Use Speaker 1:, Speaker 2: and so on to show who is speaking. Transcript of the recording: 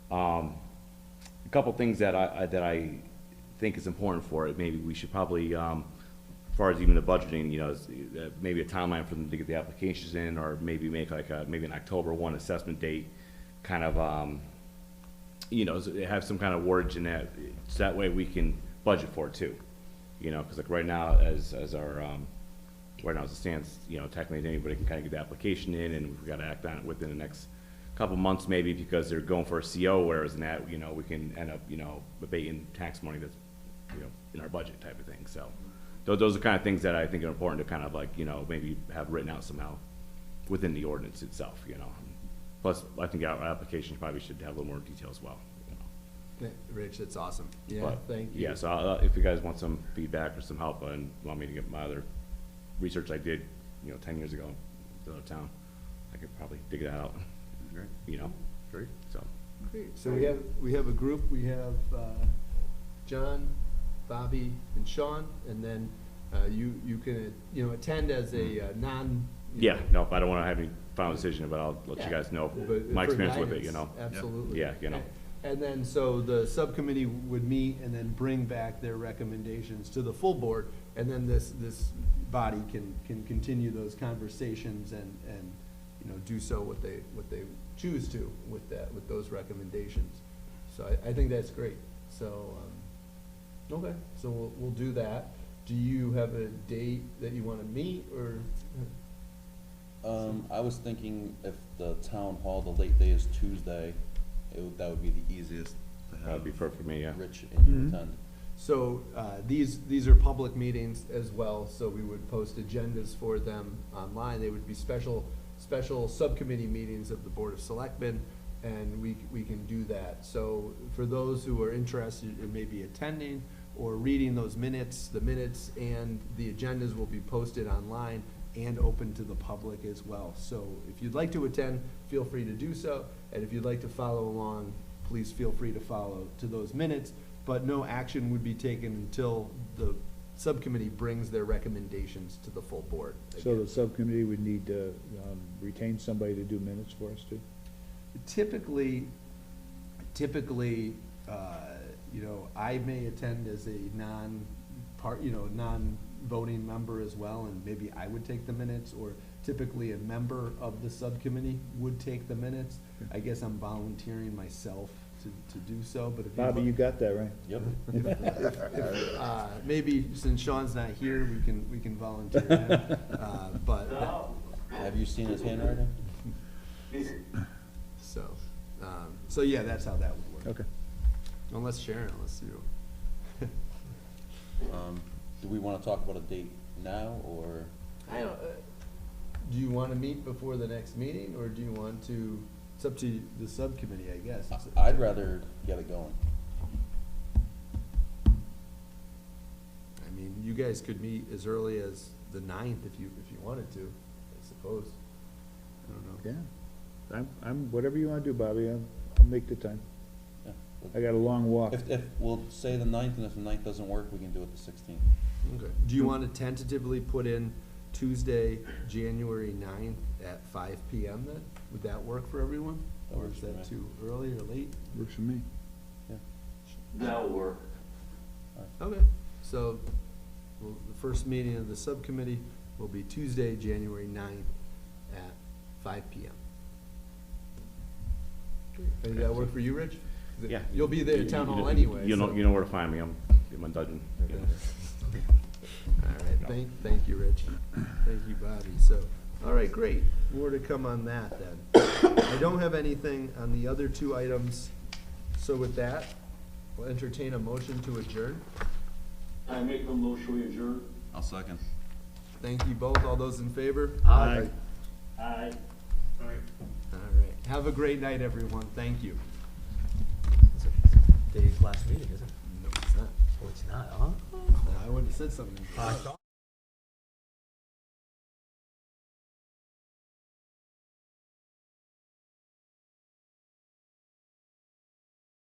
Speaker 1: couple things that I, I- that I think is important for it, maybe we should probably, um, as far as even the budgeting, you know, is, uh, maybe a timeline for them to get the applications in, or maybe make like a, maybe an October one assessment date, kind of, um, you know, s- have some kind of wordage in that, so that way we can budget for it too. You know, because like right now, as, as our, um, right now as it stands, you know, technically anybody can kind of get the application in and we've got to act on it within the next couple months maybe because they're going for a CO, whereas in that, you know, we can end up, you know, abating tax money that's, you know, in our budget type of thing, so. Those, those are kind of things that I think are important to kind of like, you know, maybe have written out somehow within the ordinance itself, you know. Plus, I think our application probably should have a little more detail as well, you know.
Speaker 2: Th- Rich, that's awesome. Yeah,
Speaker 1: But,
Speaker 2: thank you.
Speaker 1: Yeah, so I'll- if you guys want some feedback or some help and want me to get my other research I did, you know, ten years ago, the other town, I could probably dig that out,
Speaker 3: Great,
Speaker 1: you know,
Speaker 3: great.
Speaker 1: so.
Speaker 2: Great. So we have, we have a group, we have uh, John, Bobby, and Sean, and then uh, you, you can, you know, attend as a uh, non. you
Speaker 1: Yeah,
Speaker 2: know,
Speaker 1: no, I don't wanna have any final decision, but I'll let
Speaker 2: Yeah.
Speaker 1: you guys know
Speaker 2: but
Speaker 1: my
Speaker 2: for
Speaker 1: experience with it,
Speaker 2: guidance,
Speaker 1: you know.
Speaker 2: Absolutely.
Speaker 1: Yeah, you know.
Speaker 2: And then, so the subcommittee would meet and then bring back their recommendations to the full board, and then this, this body can, can continue those conversations and, and, you know, do so what they, what they choose to with that, with those recommendations. So I, I think that's great, so, um, okay, so we'll, we'll do that. Do you have a date that you wanna meet, or?
Speaker 4: Um, I was thinking if the town hall, the late day is Tuesday, it would, that would be the easiest to have.
Speaker 1: That'd be perfect for me, yeah.
Speaker 4: Rich and
Speaker 2: Mhm.
Speaker 4: you attend.
Speaker 2: So uh, these, these are public meetings as well, so we would post agendas for them online. They would be special, special subcommittee meetings of the Board of Selectmen, and we, we can do that. So for those who are interested in maybe attending or reading those minutes, the minutes and the agendas will be posted online and open to the public as well. So if you'd like to attend, feel free to do so, and if you'd like to follow along, please feel free to follow to those minutes, but no action would be taken until the subcommittee brings their recommendations to the full board.
Speaker 5: So the subcommittee would need to um, retain somebody to do minutes for us too?
Speaker 2: Typically, typically, uh, you know, I may attend as a non-part, you know, non-voting member as well, and maybe I would take the minutes, or typically a member of the subcommittee would take the minutes.
Speaker 5: Hmm.
Speaker 2: I guess I'm volunteering myself to, to do so, but if you.
Speaker 5: Bobby, you got that, right?
Speaker 4: Yep,
Speaker 2: Uh, Maybe since Sean's not here, we can, we can volunteer him, uh, but, that-
Speaker 4: have you seen his handwriting?
Speaker 2: so, um, so yeah, that's how that would work.
Speaker 5: Okay.
Speaker 2: Unless Sharon, unless you,
Speaker 4: Um, do we wanna talk about a date now, or,
Speaker 2: I don't, uh, do you wanna meet before the next meeting, or do you want to, it's up to the subcommittee, I guess. It's-
Speaker 4: I- I'd rather get it going.
Speaker 2: I mean, you guys could meet as early as the ninth if you, if you wanted to, I suppose. I don't know.
Speaker 5: Yeah. I'm, I'm, whatever you wanna do, Bobby, I'll, I'll make the time.
Speaker 4: Yeah.
Speaker 5: I got a long walk.
Speaker 4: If, if, we'll say the ninth, and if the ninth doesn't work, we can do it the sixteenth.
Speaker 2: Okay. Do you want to tentatively put in Tuesday, January ninth at five P M then? Would that work for everyone?
Speaker 4: That
Speaker 2: Or
Speaker 4: works
Speaker 2: is
Speaker 4: for
Speaker 2: that
Speaker 4: me.
Speaker 2: too early or late?
Speaker 5: Works for me.
Speaker 3: That'll work.
Speaker 2: Okay, so, well, the first meeting of the subcommittee will be Tuesday, January ninth at five P M. Does that work for you, Rich? 'Cause it-
Speaker 1: Yeah.
Speaker 2: You'll be there at town
Speaker 1: You- you-
Speaker 2: hall anyway,
Speaker 1: You know,
Speaker 2: so-
Speaker 1: you know where to find me, I'm in my dungeon, you know.
Speaker 2: All right, thank, thank you, Rich. Thank you, Bobby. So, all right, great. More to come on that then. I don't have anything on the other two items. So with that, we'll entertain a motion to adjourn.
Speaker 3: I make a motion we adjourn.
Speaker 4: I'll second.
Speaker 2: Thank you both. All those in favor?
Speaker 3: Aye. Aye. Aye.
Speaker 2: All right. Have a great night, everyone. Thank you.
Speaker 6: Today's last meeting, isn't it?
Speaker 2: No, it's not.
Speaker 6: Oh, it's not, huh?
Speaker 2: I wouldn't have said something.